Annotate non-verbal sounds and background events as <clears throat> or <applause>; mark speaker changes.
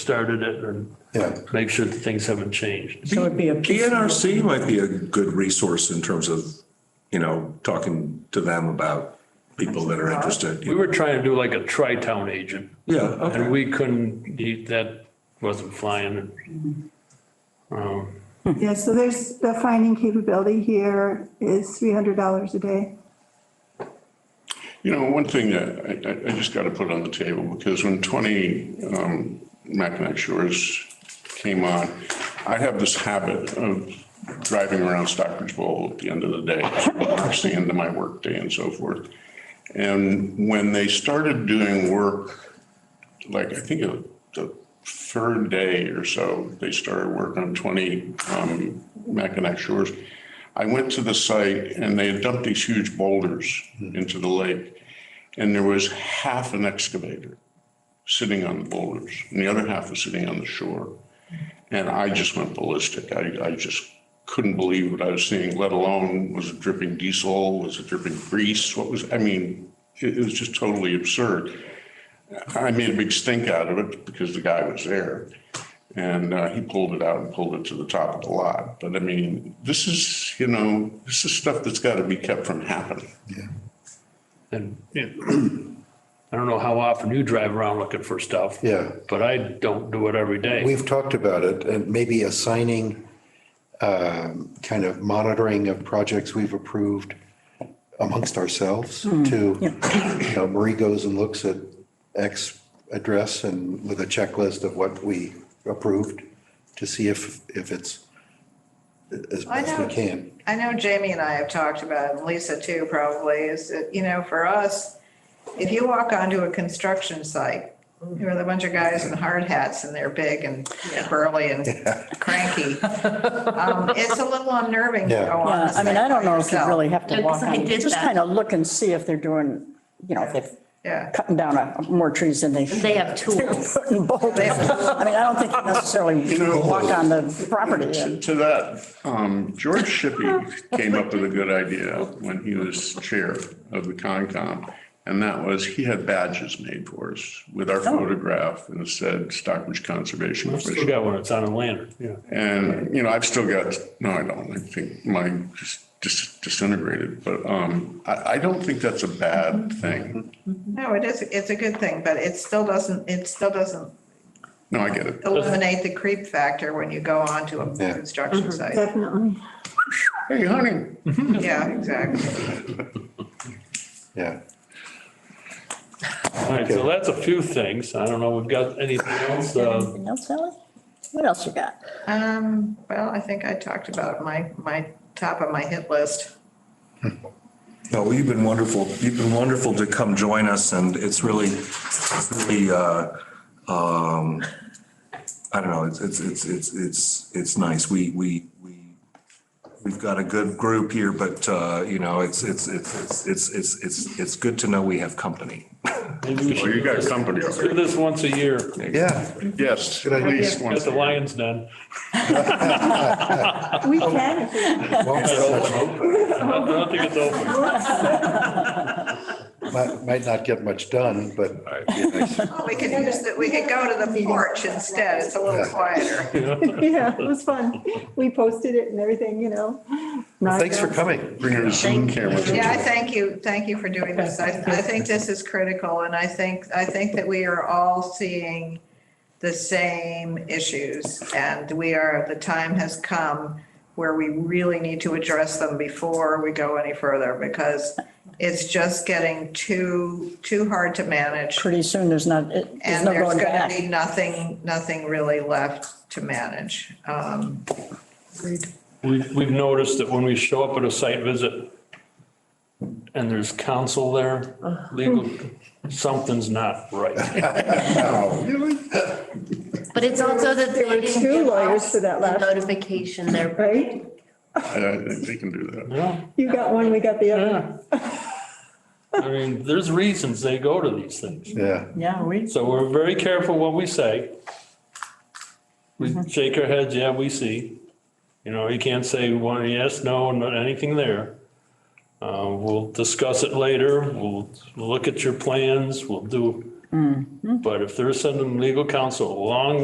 Speaker 1: started it and
Speaker 2: Yeah.
Speaker 1: make sure that things haven't changed.
Speaker 3: So it'd be a piece.
Speaker 4: PNRC might be a good resource in terms of, you know, talking to them about people that are interested.
Speaker 1: We were trying to do like a tri-town agent
Speaker 4: Yeah,
Speaker 1: and
Speaker 4: okay.
Speaker 1: we couldn't, he- that wasn't flying. Um,
Speaker 5: Yeah, so there's, the finding capability here is $300 a day.
Speaker 6: You know, one thing that I, I, I just got to put on the table, because when 20 um, Mackinac Shores came on, I have this habit of driving around Stockbridge Bowl at the end of the day, it's the end of my workday and so forth. And when they started doing work, like, I think it- the third day or so, they started work on 20 um, Mackinac Shores. I went to the site and they had dumped these huge boulders into the lake. And there was half an excavator sitting on the boulders and the other half was sitting on the shore. And I just went ballistic. I, I just couldn't believe what I was seeing, let alone was it dripping diesel? Was it dripping grease? What was, I mean, it, it was just totally absurd. I made a big stink out of it because the guy was there. And uh, he pulled it out and pulled it to the top of the lot. But I mean, this is, you know, this is stuff that's got to be kept from happening.
Speaker 1: And yeah, <clears throat> I don't know how often you drive around looking for stuff.
Speaker 2: Yeah.
Speaker 1: But I don't do it every day.
Speaker 2: We've talked about it, and maybe assigning um, kind of monitoring of projects we've approved amongst ourselves to, you know, Marie goes and looks at X address and with a checklist of what we approved to see if, if it's as
Speaker 7: I
Speaker 2: best we
Speaker 7: know.
Speaker 2: can.
Speaker 7: I know Jamie and I have talked about, and Lisa too probably, is that, you know, for us, if you walk onto a construction site, there's a bunch of guys in hard hats and they're big and you know, burly and cranky.
Speaker 2: <laughs>
Speaker 7: Um, It's a little unnerving to
Speaker 2: Yeah.
Speaker 7: go on.
Speaker 3: Yeah,
Speaker 7: a
Speaker 3: I mean,
Speaker 7: site
Speaker 3: I don't
Speaker 7: by
Speaker 3: know if you
Speaker 7: yourself.
Speaker 3: really have to
Speaker 8: Yeah,
Speaker 3: walk
Speaker 8: 'cause I
Speaker 3: on,
Speaker 8: did
Speaker 3: just
Speaker 8: that.
Speaker 3: kind of look and see if they're doing, you know, if they're
Speaker 7: Yeah.
Speaker 3: cutting down a- more trees than they.
Speaker 8: They have tools.
Speaker 3: Putting boulders. I mean, I don't think you necessarily walk on the property.
Speaker 6: To to that, um, George
Speaker 1: <laughs>
Speaker 6: Shippey came up with a good idea when he was chair of the Concom. And that was, he had badges made for us with our photograph and it said Stockbridge Conservation
Speaker 1: Oh. I've still
Speaker 6: Commission.
Speaker 1: got one, it's on a lantern, yeah.
Speaker 6: And, you know, I've still got, no, I don't, I think mine just dis- disintegrated, but um, I, I don't think that's a bad thing.
Speaker 7: No, it is, it's a good thing, but it still doesn't, it still doesn't
Speaker 6: No, I get it.
Speaker 7: eliminate the creep factor when you go onto a
Speaker 2: Yeah.
Speaker 7: construction
Speaker 3: Mm-hmm.
Speaker 7: site.
Speaker 5: Definitely.
Speaker 6: Hey, honey.
Speaker 7: Yeah, exactly.
Speaker 2: Yeah.
Speaker 1: All right, so that's a few things. I don't know, we've got anything else, uh,
Speaker 3: Anything else, Sally? What else you got?
Speaker 7: Um, well, I think I talked about my, my top of my hit list.
Speaker 4: No, well, you've been wonderful. You've been wonderful to come join us and it's really, it's really, uh, um, I don't know, it's, it's, it's, it's, it's, it's nice. We, we, we, we've got a good group here, but, uh, you know, it's, it's, it's, it's, it's, it's, it's good to know we have company.
Speaker 1: maybe we should
Speaker 6: Well, you
Speaker 1: do
Speaker 6: got
Speaker 1: this-
Speaker 6: company
Speaker 1: let's do
Speaker 6: already.
Speaker 1: this once a year.
Speaker 2: Yeah.
Speaker 6: Yes,
Speaker 2: Good idea.
Speaker 6: please.
Speaker 1: Got
Speaker 6: once
Speaker 1: the
Speaker 6: again.
Speaker 1: Lions <laughs> Den.
Speaker 5: We can if we
Speaker 2: Well,
Speaker 1: I don't think it's open.
Speaker 2: Might, might not get much done, but it'd be nice.
Speaker 7: Oh, We could use that, we could go to the porch instead. It's a little
Speaker 3: <laughs>
Speaker 7: quieter.
Speaker 5: <laughs> Yeah, it was fun. We posted it and everything, you know.
Speaker 2: Well, thanks for
Speaker 5: Nice.
Speaker 2: coming.
Speaker 6: Bring your Zoom
Speaker 8: Thank
Speaker 6: camera.
Speaker 8: you.
Speaker 6: to
Speaker 7: Yeah, I thank you, thank you for doing this. I, I think this is critical and I think, I think that we are all seeing the same issues and we are, the time has come where we really need to address them before we go any further because it's just getting too, too hard to manage.
Speaker 3: Pretty soon, there's not, it- there's
Speaker 7: And
Speaker 3: no
Speaker 7: there's
Speaker 3: going
Speaker 7: going to
Speaker 3: back.
Speaker 7: be nothing, nothing really left to manage. Um,
Speaker 1: We've, we've noticed that when we show up at a site visit and there's counsel there, legal, something's not right.
Speaker 8: But it's also that they
Speaker 5: There were
Speaker 8: didn't
Speaker 5: two
Speaker 8: give
Speaker 5: lawyers
Speaker 8: us
Speaker 5: for that
Speaker 8: the
Speaker 5: last-
Speaker 8: Notification there.
Speaker 5: Right?
Speaker 6: I I think they can do that.
Speaker 1: Yeah,
Speaker 5: You got one, we got the other.
Speaker 1: yeah. <laughs> I mean, there's reasons they go to these things.
Speaker 2: Yeah.
Speaker 3: Yeah, we,
Speaker 1: So we're very careful what we say. We shake our heads, yeah, we see. You know, you can't say one yes, no, not anything there. Uh, we'll discuss it later. We'll look at your plans. We'll do. But if they're sending legal counsel a long